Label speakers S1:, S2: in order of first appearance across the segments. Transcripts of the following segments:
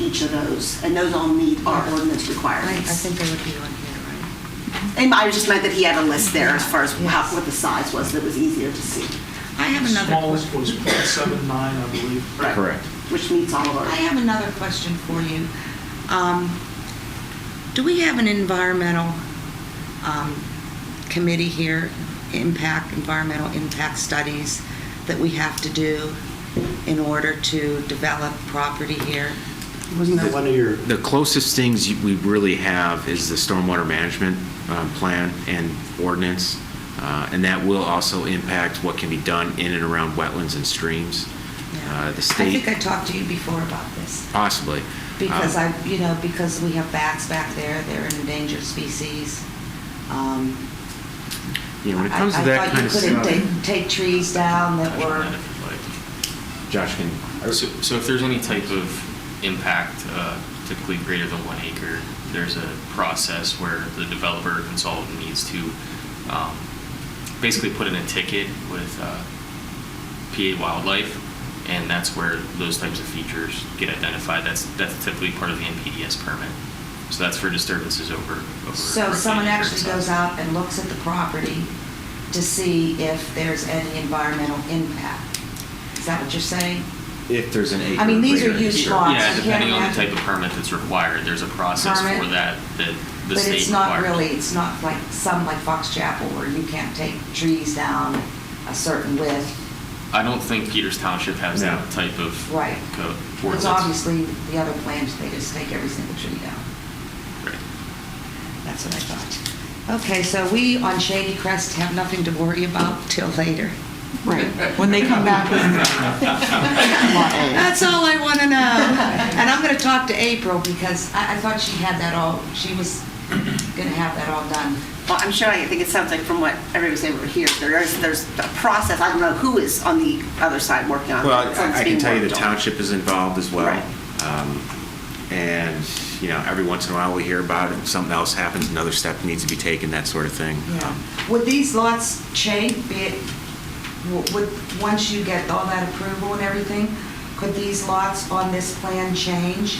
S1: each of those, and those all meet our ordinance
S2: I I
S1: requirements.
S2: think they would be on here, right?
S1: And I just meant that he had a list there as far as how,
S2: Yes.
S1: what the size was, that was easier to see.
S3: I have another,
S4: Smallest
S3: que-
S4: was .79, I believe.
S1: Right.
S5: Correct.
S1: Which meets all of
S3: I
S1: our,
S3: have another question for you. Um, Do we have an environmental um, committee here, impact, environmental impact studies that we have to do in order to develop property here?
S6: Wasn't that one of your,
S5: The closest things you- we really have is the stormwater management uh, plan and ordinance, uh, and that will also impact what can be done in and around wetlands and streams. Uh, The
S3: I think I
S5: state, Uh,
S3: talked to you before about this.
S5: possibly.
S3: Because
S5: Um,
S3: I, you know, because we have bats back there, they're an endangered species. Um,
S5: You know, when it
S3: I-
S5: comes to that kind of stuff.
S3: I thought you couldn't take, take trees down that were,
S5: Josh can.
S7: So, so if there's any type of impact, uh, typically greater than one acre, there's a process where the developer or consultant needs to um, basically put in a ticket with uh, PA Wildlife, and that's where those types of features get identified. That's that's typically part of the NPDS permit. So that's for disturbances over. over
S3: so
S7: roughly
S3: someone
S7: an acre in
S3: actually
S7: size.
S3: goes out and looks at the property to see if there's any environmental impact. Is that what you're saying?
S5: If there's an
S3: I mean, these are
S5: greater than
S3: huge
S5: certain-
S3: lots. You
S7: Yeah,
S3: can't
S7: depending on
S3: have-
S7: the type of permit that's required, there's a process
S3: Permit.
S7: for that that the
S3: But
S7: state
S3: it's not
S7: requires.
S3: really, it's not like some like Fox Chapel where you can't take trees down a certain width.
S7: I don't think Peters Township has
S5: No.
S7: that type of
S3: Right.
S5: Uh,
S7: code.
S3: Because
S7: ordinance.
S3: obviously, the other plans, they just take every single tree down.
S7: Right.
S3: That's what I thought. Okay, so we on Shady Crest have nothing to worry about till later.
S2: Right, when they come back with
S3: That's all I want to know. And I'm going to talk to April because I, I thought she had that all, she was going to have that all done.
S1: well, I'm sure, I think it sounds like from what everybody was saying over here, there is, there's a process, I don't know who is on the other side working on it.
S5: Well,
S1: but
S5: I-
S1: something's
S5: I can
S1: being
S5: tell you the
S1: worked on.
S5: township is involved as well.
S1: Right.
S5: Um, And, you know, every once in a while we hear about it, something else happens, another step needs to be taken, that sort of thing.
S3: Yeah.
S5: Um,
S3: Would these lots change, be it, w- would, once you get all that approval and everything, could these lots on this plan change?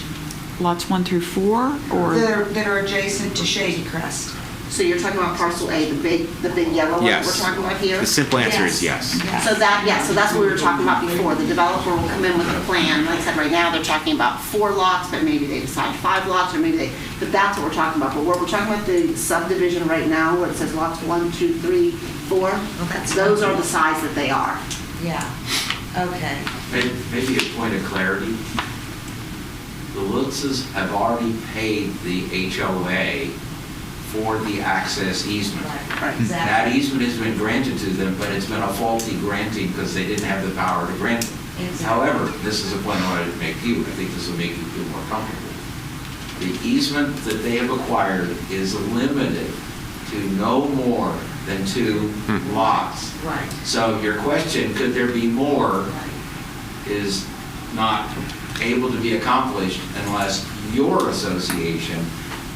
S8: Lots one through four,
S3: That
S8: or
S3: are- that are adjacent to Shady Crest?
S1: So you're talking about parcel A, the big, the big yellow one that we're
S5: Yes.
S1: talking about here?
S5: The simple answer is yes.
S1: So that, yeah, so that's what we were talking about before. The developer will come in with a plan. Like I said, right now, they're talking about four lots, but maybe they decide five lots, or maybe they, but that's what we're talking about. But what we're talking about the subdivision right now, where it says lots one, two, three, four,
S3: that's-
S1: those are the size that they are.
S3: Yeah, okay.
S9: May- Maybe a point of clarity. The Lutzes have already paid the HOA for the access easement.
S3: Right,
S9: That
S3: exactly.
S9: easement has been granted to them, but it's been a faulty granting because they didn't have the power to grant it.
S3: Exactly.
S9: However, this is a point I wanted to make to you, I think this will make you feel more comfortable. The easement that they have acquired is limited to no more than two
S5: Hmm.
S9: lots.
S3: Right.
S9: So your question, could there be more, is not able to be accomplished unless your association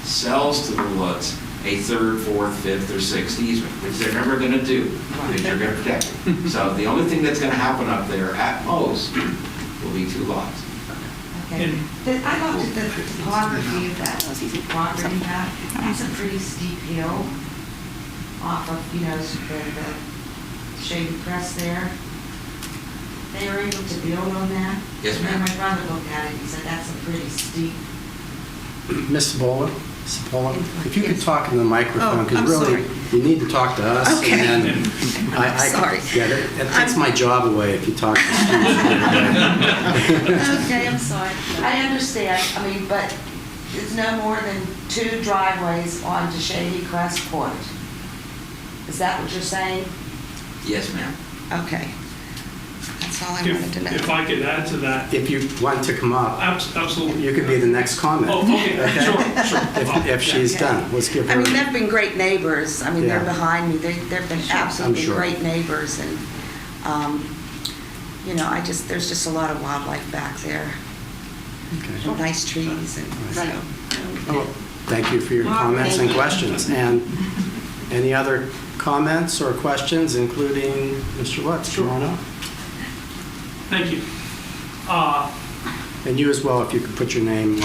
S9: sells to the Lutz a third, fourth, fifth, or sixth easement, which they're never going to do, because you're going to protect it. So the only thing that's going to happen up there at most will be two lots.
S3: Okay. The- I looked at the topography of that property map. That's a pretty steep hill off of, you know, s- the, the Shady Crest there. They were able to build on that.
S9: Yes,
S3: And then
S9: ma'am.
S3: my brother looked at it, he said, that's a pretty steep.
S6: Ms. Bola, if you could talk in the
S2: Oh,
S6: microphone,
S2: I'm
S6: because really,
S2: sorry.
S6: you need to talk to us.
S2: Okay.
S6: and then I- I-
S2: Sorry.
S6: Yeah, that- that takes
S2: I'm-
S6: my job away if you talk to students.
S3: Okay, I'm sorry. I understand, I mean, but there's no more than two driveways onto Shady Crest Point. Is that what you're saying?
S9: Yes, ma'am.
S3: Okay. That's all Oh, I wanted to know.
S4: If if I could add to that,
S6: If you want to come up,
S4: abs- absolutely.
S6: you could be the next comment.
S4: Oh, okay,
S6: Okay?
S4: sure, sure.
S6: If if she's done, let's give
S3: I
S6: her.
S3: mean, they've been great neighbors. I mean, they're
S6: Yeah.
S3: behind me. They- They've been
S6: I'm
S3: absolutely
S6: sure.
S3: great neighbors, and, um, you know, I just, there's just a lot of wildlife back there,
S6: Okay.
S3: and nice trees, and
S6: Right.
S3: so.
S1: Oh.
S6: Well, Thank you for your comments and questions. And any other comments or questions, including Mr. Lutz? Come on up.
S4: Thank you. Uh,
S6: And you as well, if you could put your name